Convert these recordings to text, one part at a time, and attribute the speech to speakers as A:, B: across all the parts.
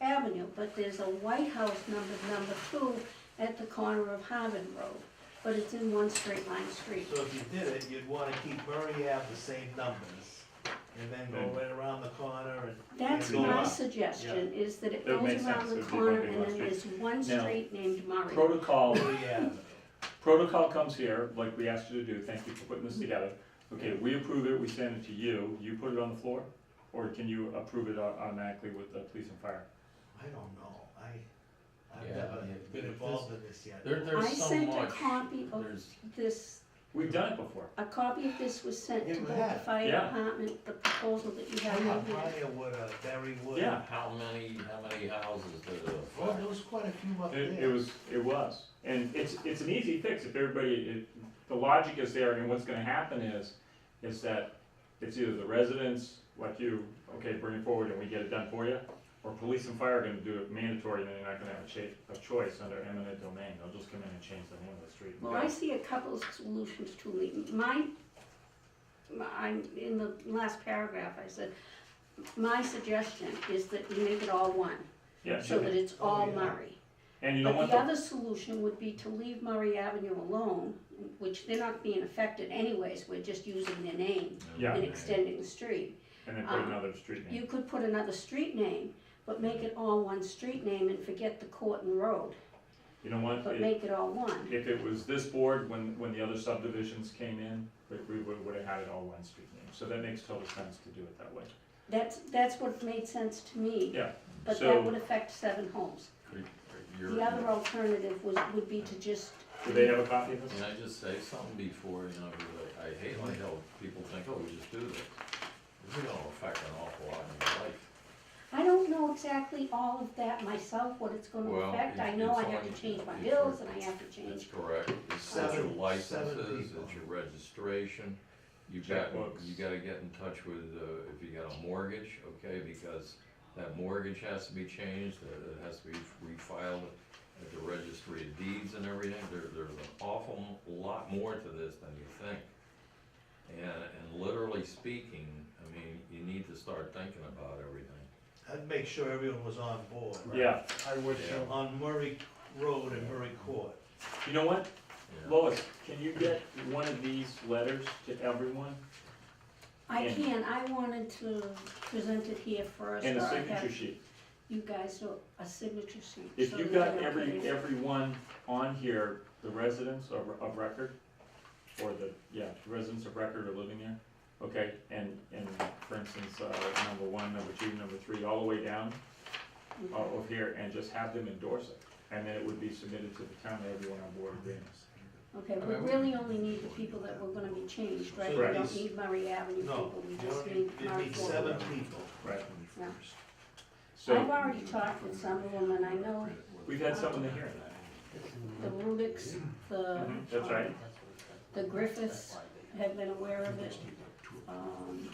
A: Avenue, but there's a White House number, number two, at the corner of Harvard Road, but it's in one straight line street.
B: So if you did it, you'd wanna keep Murray Ave the same numbers, and then go right around the corner and.
A: That's
B: and go
A: my
B: up.
A: suggestion, is that it
C: It would make
A: goes around
C: sense,
A: the
C: it would be
A: corner
C: one big
A: and
C: one
A: then there's one
C: Now,
A: street named Murray.
C: Protocol,
B: Murray Ave.
C: protocol comes here, like we asked you to do, thank you for putting this together. Okay, we approve it, we send it to you, you put it on the floor? Or can you approve it au- automatically with the police and fire?
B: I don't know, I, I've
D: Yeah,
B: never
D: yeah,
B: been
D: but
B: involved in this yet.
D: There,
A: I
D: there's so
A: sent a
D: much.
A: copy of
D: There's-
A: this,
C: We've done it before.
A: a copy of this was sent to
B: Yeah, we
A: both the
B: have.
A: fire
C: Yeah.
A: department, the proposal that you
B: How
A: have in
B: about
A: here.
B: Briarwood or Berrywood?
C: Yeah.
D: How many, how many houses uh, did it
B: Well,
D: affect?
B: there was quite a few up there.
C: It, it was, it was, and it's, it's an easy fix if everybody, it, the logic is there, and what's gonna happen is, is that it's either the residents, like you, okay, bring it forward and we get it done for you, or police and fire are gonna do it mandatory, and then you're not gonna have a cha- a choice under eminent domain, they'll just come in and change the name of the street.
A: Well, I see a couple of solutions to leave. My, my- I'm, in the last paragraph, I said, my suggestion is that you make it all one,
C: Yeah,
A: so that it's all
B: Oh, yeah.
A: Murray.
C: and you don't
A: But
C: want
A: the
C: the,
A: other solution would be to leave Murray Avenue alone, which they're not being affected anyways, we're just using their name
C: Yeah.
A: and extending the street.
C: and then put
A: um,
C: another street name,
A: You could put another street name, but make it all one street name and forget the court and road,
C: you don't want,
A: but
C: it-
A: make it all one.
C: if it was this board, when, when the other subdivisions came in, we, we would, would have had it all one street name, so that makes total sense to do it that way.
A: That's, that's what made sense to me.
C: Yeah,
A: But
C: so-
A: that would affect seven homes.
D: Could- could your-
A: The other alternative was, would be to just,
C: Do they have a copy of this?
D: Can I just say something before, you know, because I, I hate like how people think, oh, we just do this. This is gonna affect an awful lot in your life.
A: I don't know exactly all of that myself, what it's gonna
D: Well,
A: affect. I
D: it's-
A: know I
D: it's
A: have
D: on-
A: to change my
D: it's
A: bills
D: on-
A: and I have to
D: That's
A: change,
D: correct. It's it's your
B: Seven- seven
D: licenses,
B: people.
D: it's your registration. You got,
C: Checkbooks.
D: you gotta get in touch with, uh, if you got a mortgage, okay, because that mortgage has to be changed, uh, it has to be refiled at the registry of deeds and everything. There, there's an awful lot more to this than you think. And, and literally speaking, I mean, you need to start thinking about everything.
B: I'd make sure everyone was on board.
C: Yeah,
B: I would.
D: too.
B: On Murray Road and Murray Court.
C: you know what,
D: you know?
C: Lois, can you get one of these letters to everyone?
A: I
C: And-
A: can, I wanted to present it here first.
C: And
A: or
C: a
A: I have
C: signature sheet,
A: You guys do a signature sheet.
C: if
A: so
C: you
A: that
C: got
A: I
C: every,
A: can-
C: everyone on here, the residents of, of record, or the, yeah, residents of record are living there, okay, and, and for instance, uh, number one, number two, number three, all the way down,
A: Mm-hmm.
C: uh, over here, and just have them endorse it, and then it would be submitted to the town, everyone on board agrees. oh.
A: Okay, we really only need the people that were gonna be changed, right? We
C: Correct.
A: don't need Murray Avenue
B: No,
A: people, we
B: you
A: just
B: only, you
A: need Murray
B: need
A: Ford.
B: seven people.
C: Right.
A: Yeah. I've
C: So,
A: already talked with some of them and I know
C: we've had someone in here,
A: The Rubiks, the.
C: Mhm, that's
A: um,
C: right.
A: The Griffiths have been aware of it. um,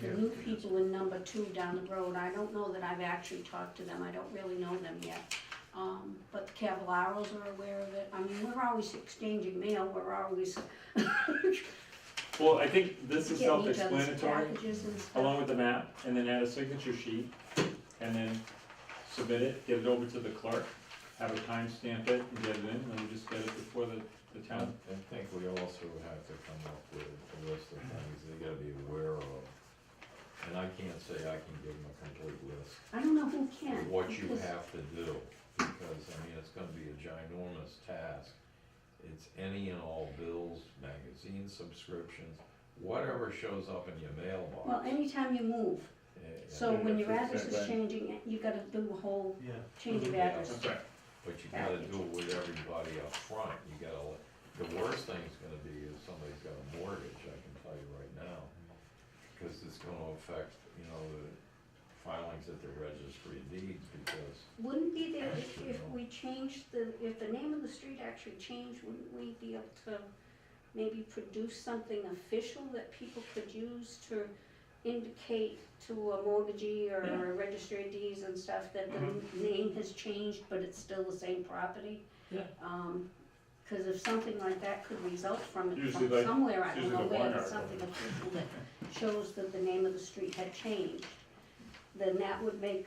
A: The new people in number two down the road, I don't know that I've actually talked to them, I don't really know them yet. Um, but the Cavalaros are aware of it, I mean, we're always exchanging mail, we're always
C: well, I think this is
A: getting each
C: self-explanatory.
A: other's packages and stuff.
C: along with the map, and then add a signature sheet, and then submit it, get it over to the clerk, have her timestamp it, and get it in, and then we just get it before the, the
D: I
C: town.
D: I think we also have to come up with a list of things they gotta be aware of. And I can't say I can give them a complete list
A: I don't know who
D: of
A: can.
D: what you
A: because-
D: have to do, because, I mean, it's gonna be a ginormous task. It's any and all bills, magazine subscriptions, whatever shows up in your
A: Well,
D: mailbox.
A: anytime you move,
D: eh,
A: so
C: Yeah,
A: when your
C: that's
A: address is
C: exactly.
A: changing, you gotta do a whole
B: Yeah.
A: change of
D: Yeah.
A: address.
C: Okay.
D: But you gotta do it with everybody up front, you gotta, let- the worst thing's gonna be if somebody's got a mortgage, I can tell you right now. Cause it's gonna affect, you know, the filings at the registry of deeds, because
A: Wouldn't be there if, if we changed the, if the name of the street actually changed, wouldn't we be able to maybe produce something official that people could use to indicate to a mortgagee or a registry of deeds and stuff that the name has changed, but it's still the same property?
C: Yeah.
A: Um, cause if something like that could result from it
C: Usually
A: from
C: like-
A: somewhere, I don't
C: usually
A: know
C: the
A: where,
C: warrant
A: but
C: article.
A: something official that shows that the name of the street had changed, then that would make